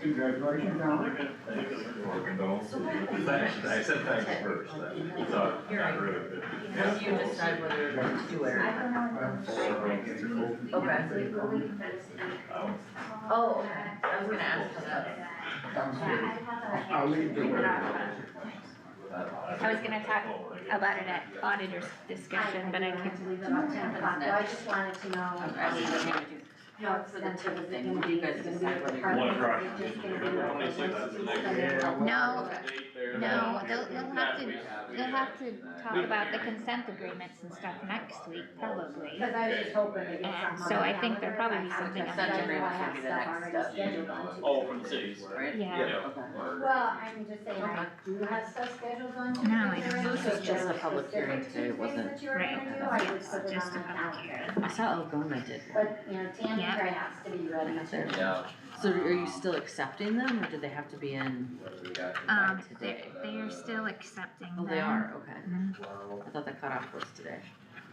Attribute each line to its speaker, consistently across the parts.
Speaker 1: Congratulations, Alex.
Speaker 2: Or condolences. Thanks, I said thanks first, then, it's not, not rude, but.
Speaker 3: Because you decide whether you're going to wear it.
Speaker 2: um,
Speaker 3: Oh, okay, I was gonna ask for that.
Speaker 1: Sounds good. I'll leave the word.
Speaker 4: I was gonna talk about it at auditor's discussion, but I can't.
Speaker 5: Well, I just wanted to
Speaker 3: I'm
Speaker 5: know.
Speaker 3: asking what you do.
Speaker 5: how expensive it's gonna be.
Speaker 3: You guys decide whether you're-
Speaker 5: Are
Speaker 6: One across.
Speaker 5: they just gonna do it?
Speaker 6: Twenty-six is the next
Speaker 1: Yeah, well,
Speaker 4: No,
Speaker 6: No,
Speaker 4: they'll- they'll have to- You'll have to talk about the consent agreements and stuff next week, probably.
Speaker 5: Cause I was just hoping to get
Speaker 4: Yeah,
Speaker 5: something.
Speaker 4: so I think there'll probably be something
Speaker 3: Consent agreements would be the next step.
Speaker 6: Oh, from the cities.
Speaker 3: Right?
Speaker 4: Yeah,
Speaker 3: Okay.
Speaker 5: Well, I'm just saying, I do have stuff scheduled on. Tuesday,
Speaker 4: No, I know.
Speaker 5: Thursday,
Speaker 3: So this is just a
Speaker 5: Thursday,
Speaker 3: public hearing
Speaker 5: specific
Speaker 3: today, it
Speaker 5: Tuesdays
Speaker 3: wasn't-
Speaker 5: that you were
Speaker 4: Right.
Speaker 5: gonna do, I would put it
Speaker 4: just
Speaker 5: on
Speaker 4: a
Speaker 5: my
Speaker 4: public
Speaker 5: calendar.
Speaker 4: hearing.
Speaker 3: I saw Algoma did one.
Speaker 5: But, you know,
Speaker 4: Yeah.
Speaker 5: Tammy has to be ready to.
Speaker 7: Yeah,
Speaker 3: So are you still accepting them or do they have to be in?
Speaker 4: Um, they're, they're still accepting
Speaker 3: Oh,
Speaker 4: them.
Speaker 3: they are, okay.
Speaker 4: Mhm.
Speaker 3: I thought the cutoff was today.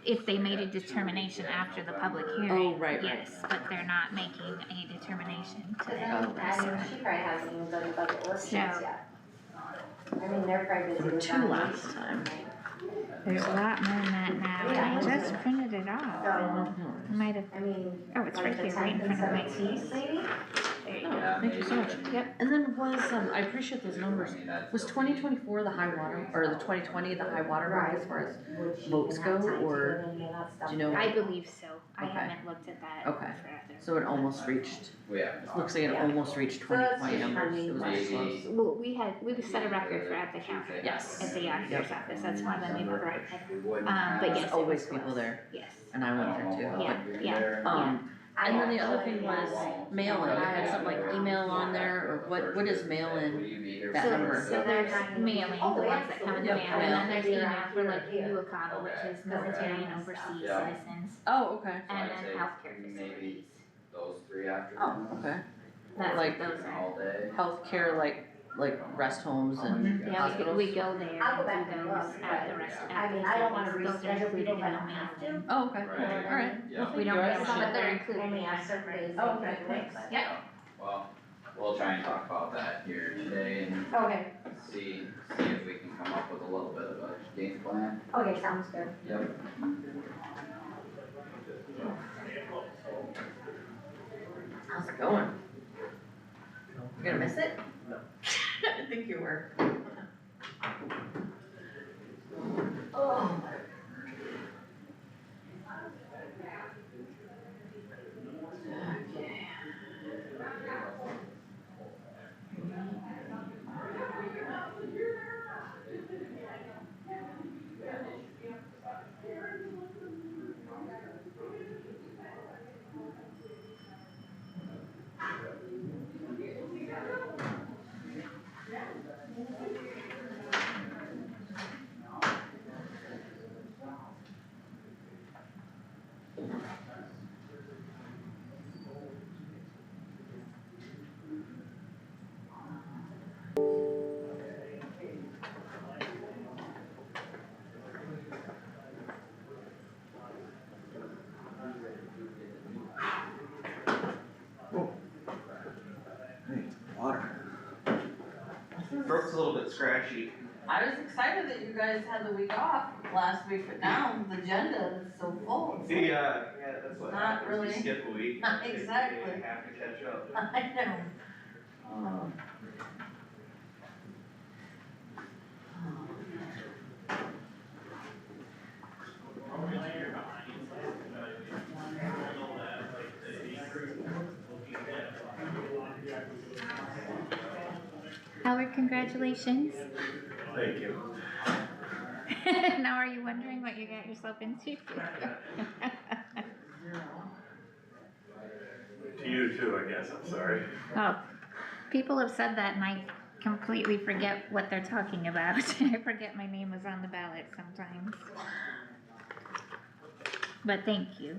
Speaker 4: If they made a determination after the public
Speaker 3: Oh,
Speaker 4: hearing,
Speaker 3: right, right.
Speaker 4: yes, but they're not making a determination
Speaker 5: Cause
Speaker 4: today.
Speaker 5: then, I mean, she probably hasn't even done the budget workshops
Speaker 4: Yeah.
Speaker 5: yet. I mean, they're probably busy
Speaker 3: There were
Speaker 5: with
Speaker 3: two
Speaker 5: that.
Speaker 3: last time.
Speaker 4: There's a lot more than that now, I just printed it off.
Speaker 5: So,
Speaker 3: Oh,
Speaker 4: Might have,
Speaker 5: I mean.
Speaker 4: oh, it's
Speaker 5: like
Speaker 4: right
Speaker 5: the
Speaker 4: there, right in
Speaker 5: 10th and
Speaker 4: front of my
Speaker 5: 17th
Speaker 4: face.
Speaker 5: maybe?
Speaker 4: There you go.
Speaker 3: Oh, thank you so much.
Speaker 4: Yep.
Speaker 3: And then was, um, I appreciate those numbers. Was twenty twenty-four the high water, or the twenty twenty the high water mark as far as?
Speaker 5: Would she
Speaker 3: votes
Speaker 5: even have
Speaker 3: go,
Speaker 5: time to
Speaker 3: or
Speaker 5: get into that stuff?
Speaker 3: do you know-
Speaker 4: I believe so, I
Speaker 3: Okay.
Speaker 4: haven't looked at that
Speaker 3: Okay.
Speaker 4: forever.
Speaker 3: So it almost reached,
Speaker 7: Yeah.
Speaker 3: looks like it
Speaker 5: Yeah.
Speaker 3: almost reached
Speaker 5: So
Speaker 3: twenty
Speaker 5: that's
Speaker 3: twenty
Speaker 5: just
Speaker 3: numbers. It was
Speaker 5: funny.
Speaker 3: pretty close.
Speaker 4: Well, we had, we set a record for at the counter, at
Speaker 3: Yes.
Speaker 4: the auditor's office, that's one of them we were right. Um, but
Speaker 3: There's
Speaker 4: yes, it
Speaker 3: always
Speaker 4: was
Speaker 3: people
Speaker 4: close.
Speaker 3: there,
Speaker 4: Yes,
Speaker 3: and I went there
Speaker 8: Oh.
Speaker 3: too.
Speaker 4: yeah, yeah.
Speaker 3: but, Um,
Speaker 5: I
Speaker 3: and then the
Speaker 5: have no
Speaker 3: other thing
Speaker 5: idea.
Speaker 3: was mail-in, I had something like email on there, or what, what is mail-in? that number.
Speaker 4: So, so there's mailing, the
Speaker 5: Oh,
Speaker 4: ones that come in the mail,
Speaker 3: absolutely.
Speaker 4: and then there's
Speaker 5: Yeah.
Speaker 4: email for like
Speaker 5: Yeah.
Speaker 4: UOCAMA, which is military and overseas
Speaker 7: Yeah.
Speaker 4: citizens,
Speaker 3: Oh, okay.
Speaker 4: and then healthcare facilities.
Speaker 7: Those three after.
Speaker 3: Oh, okay.
Speaker 4: That's
Speaker 3: Like-
Speaker 4: what those are.
Speaker 7: All day.
Speaker 3: Healthcare, like, like rest homes and
Speaker 4: Yeah, we, we
Speaker 3: hospitals?
Speaker 4: go there
Speaker 5: I'll go
Speaker 4: and
Speaker 5: back and
Speaker 4: do
Speaker 5: look,
Speaker 4: those at the
Speaker 7: but,
Speaker 4: restaurant.
Speaker 5: I mean, I don't wanna
Speaker 4: Those are
Speaker 5: reschedule
Speaker 4: included
Speaker 5: people
Speaker 4: in
Speaker 5: if I don't have
Speaker 4: the
Speaker 5: to.
Speaker 4: mail.
Speaker 3: Oh, okay.
Speaker 7: Right.
Speaker 3: Alright.
Speaker 7: Yeah.
Speaker 4: We don't
Speaker 3: You're
Speaker 4: really,
Speaker 3: right.
Speaker 4: but they're included in the
Speaker 5: Only ask certain
Speaker 4: mail.
Speaker 5: days.
Speaker 3: Oh, okay, thanks.
Speaker 5: Yeah.
Speaker 7: Well, we'll try and talk about that here today and
Speaker 5: Okay,
Speaker 7: see, see if we can come up with a little bit of a game plan.
Speaker 5: okay, sounds good.
Speaker 7: Yep.
Speaker 3: How's it going? You gonna miss it? No. I think you were. Oh. Okay.
Speaker 2: Water. Throat's a little bit scratchy.
Speaker 1: I was excited that you guys had the week off last week, but now the agenda is so full.
Speaker 8: Yeah, yeah, that's what
Speaker 1: Not
Speaker 8: happens,
Speaker 1: really.
Speaker 8: we skip a week.
Speaker 1: Exactly.
Speaker 8: We have to catch up.
Speaker 1: I know.
Speaker 7: Um,
Speaker 1: Oh.
Speaker 4: Howard, congratulations.
Speaker 8: Thank you.
Speaker 4: Now are you wondering what you got yourself into?
Speaker 8: To you too, I guess, I'm sorry.
Speaker 4: Oh, people have said that and I completely forget what they're talking about. I forget my name was on the ballot sometimes. But thank you.